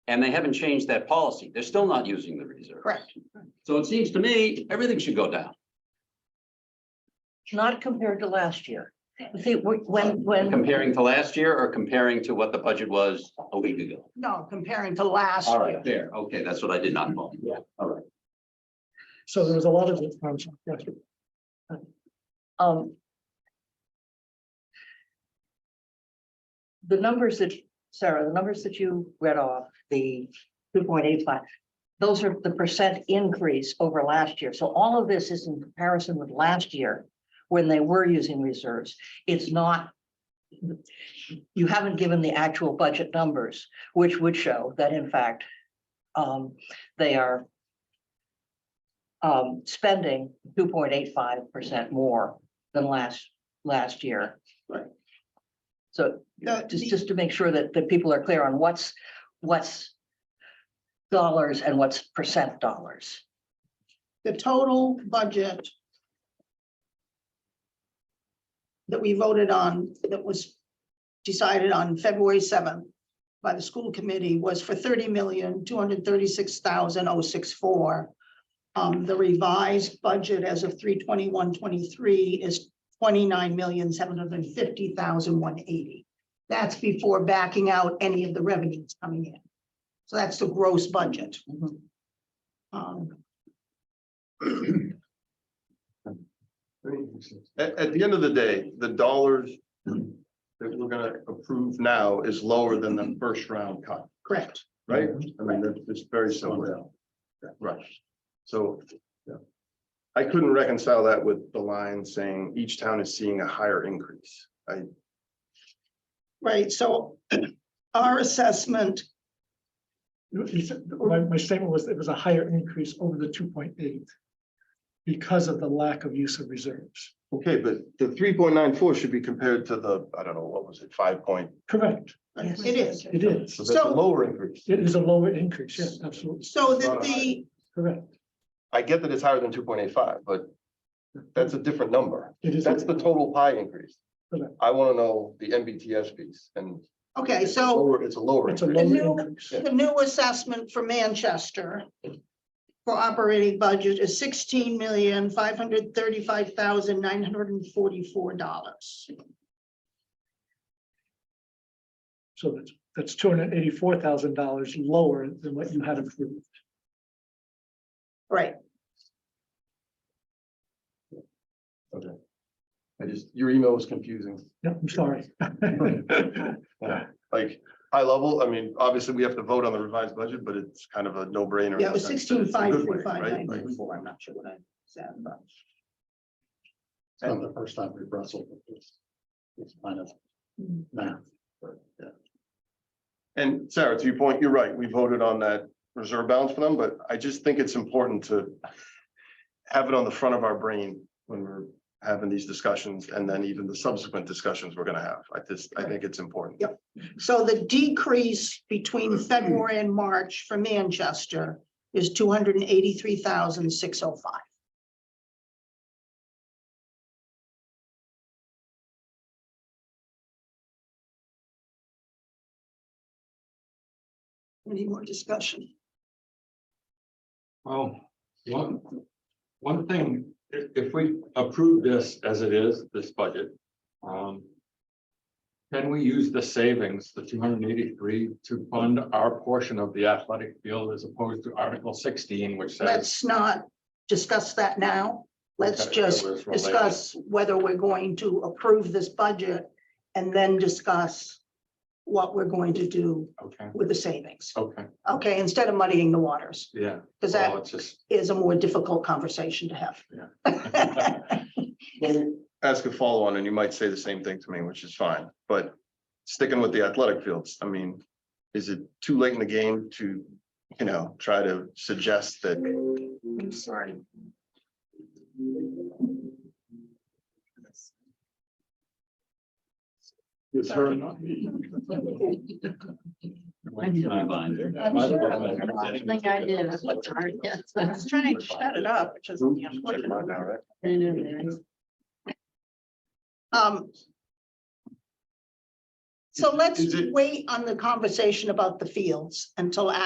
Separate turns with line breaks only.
And they haven't changed that policy. They're still not using the reserve.
Correct.
So it seems to me, everything should go down.
Not compared to last year. See, wh- when, when,
Comparing to last year or comparing to what the budget was a week ago?
no, comparing to last
All
year.
right, there. Okay, that's what I did not know.
So there was a lot of. um, yeah.
Um. The numbers that, Sarah, the numbers that you read off, the two point eight five, those are the percent increase over last year. So all of this is in comparison with last year when they were using reserves. It's not. You haven't given the actual budget numbers, which would show that in fact, um, they are um, spending two point eight five percent more than last, last year.
Right.
So
The-
just,
the-
just to make sure that, that people are clear on what's, what's dollars and what's percent dollars.
the total budget that we voted on, that was decided on February seventh by the school committee was for thirty million, two hundred thirty-six thousand oh six four. Um, the revised budget as of 321-23 is twenty-nine million, seven hundred fifty thousand one eighty. That's before backing out any of the revenues coming in. So that's the gross budget. Um,
At, at the end of the day, the dollars that we're gonna approve now is lower than the first round cut,
correct.
right? I mean, that's, it's very similar. Right, so, yeah. I couldn't reconcile that with the line saying each town is seeing a higher increase. I,
Right, so our assessment,
You said- My, my statement was it was a higher increase over the two point eight because of the lack of use of reserves.
okay, but the three point nine four should be compared to the, I don't know, what was it, five point?
Correct,
Yes.
it is,
it is.
So that's a
So-
lower increase.
It is a lower increase, yes, absolutely,
so that the,
correct.
I get that it's higher than two point eight five, but that's a different number.
It is,
That's the total pie increase.
Correct.
I want to know the MBTS piece and.
okay,
it's
so
lower- It's a lower.
it's a
increase.
lower increase.
the new assessment for Manchester for operating budget is sixteen million, five hundred thirty-five thousand, nine hundred and forty-four dollars.
So that's, that's two hundred and eighty-four thousand dollars lower than what you had approved.
Right,
I just, your email was confusing.
Yeah, I'm sorry.
Like, high level, I mean, obviously, we have to vote on the revised budget, but it's kind of a no brainer.
yeah, it was sixteen, five, three, five, nine,
Right, like,
nine, four, I'm not sure what I said, but.
It's not the first time we've wrestled with this. It's kind of math.
And Sarah, to your point, you're right. We voted on that reserve balance for them, but I just think it's important to have it on the front of our brain when we're having these discussions and then even the subsequent discussions we're gonna have. I just, I think it's important.
Yep. So the decrease between February and March for Manchester is two hundred and eighty-three thousand, six oh five. Any more discussion?
Well, one, one thing, if, if we approve this as it is, this budget, um. Can we use the savings, the two hundred and eighty-three, to fund our portion of the athletic field as opposed to Article sixteen, which says.
Let's not discuss that now. Let's
Okay,
just
it was related.
discuss whether we're going to approve this budget and then discuss what we're going to do
Okay,
with the savings.
okay,
Okay, instead of muddying the waters,
yeah.
because
Well,
that
it's just-
is a more difficult conversation to have.
Let me Ask a follow on and you might say the same thing to me, which is fine, but sticking with the athletic fields, I mean, is it too late in the game to, you know, try to suggest that?
I'm sorry.
Like I did. I was sorry, yes.
I was trying to shut it up, which is the unfortunate. Um. So let's
Is it-
wait on the conversation about the fields until